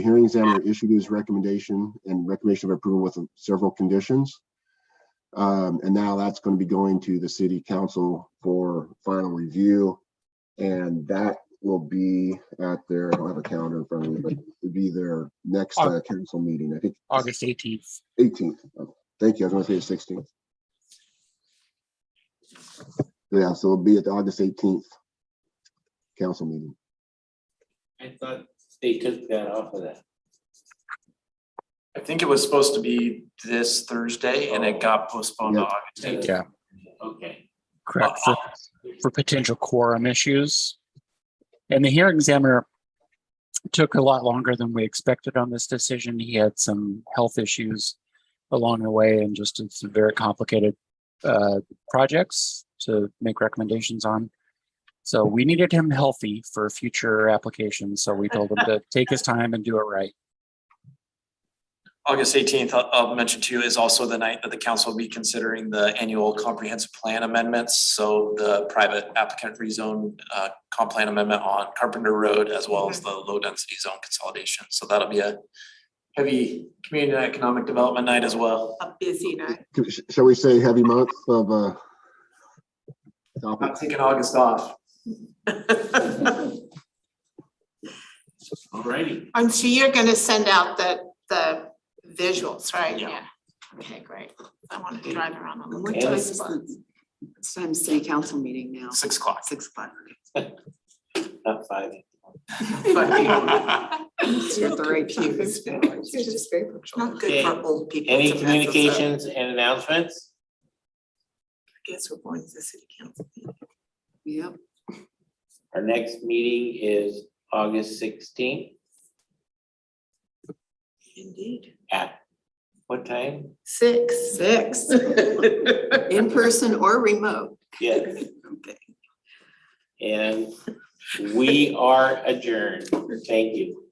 hearing examiner issued his recommendation and recommendation of approval with several conditions. Um, and now that's going to be going to the city council for final review. And that will be at their, I don't have a calendar in front of me, but it'll be their next uh, council meeting, I think August eighteenth. eighteenth. Oh, Thank you, I was gonna say the sixteenth. Yeah, so it'll be at the August eighteenth council meeting. I thought they took that off of that. I think it was supposed to be this Thursday and it got postponed to Yeah. August. Yeah. Okay. Correct, for, for potential quorum issues. And the hearing examiner took a lot longer than we expected on this decision. He had some health issues along the way and just did some very complicated uh, projects to make recommendations on. So we needed him healthy for future applications, so we told him to take his time and do it right. August eighteenth, I'll, I'll mention to you is also the night that the council will be considering the annual comprehensive plan amendments. So the private applicant rezone, uh, comp plan amendment on Carpenter Road as well as the low density zone consolidation. So that'll be a heavy community and economic development night as well. a busy night. Could- sh- Shall we say heavy month of, uh, I'm topics? taking August off. Alrighty, I'm sure you're gonna send out the, the visuals, right? Yeah. Okay, great. I want to drive around and look What Okay. at time the is spots. the, it's time city council meeting now, Six o'clock. six o'clock. not five. You're at the right pew. Not Okay. good for old people. Any to mess this up. communications and announcements? I Guess we're going to the city council. Yep, Our next meeting is August sixteenth Indeed. at what time? Six. six, in person or remote. Yes, Okay. and we are adjourned. Thank you.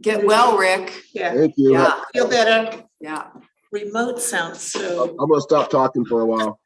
Get well, Rick. Yeah. Thank you. Yeah, Feel better. yeah. Remote sounds so. I'm gonna stop talking for a while.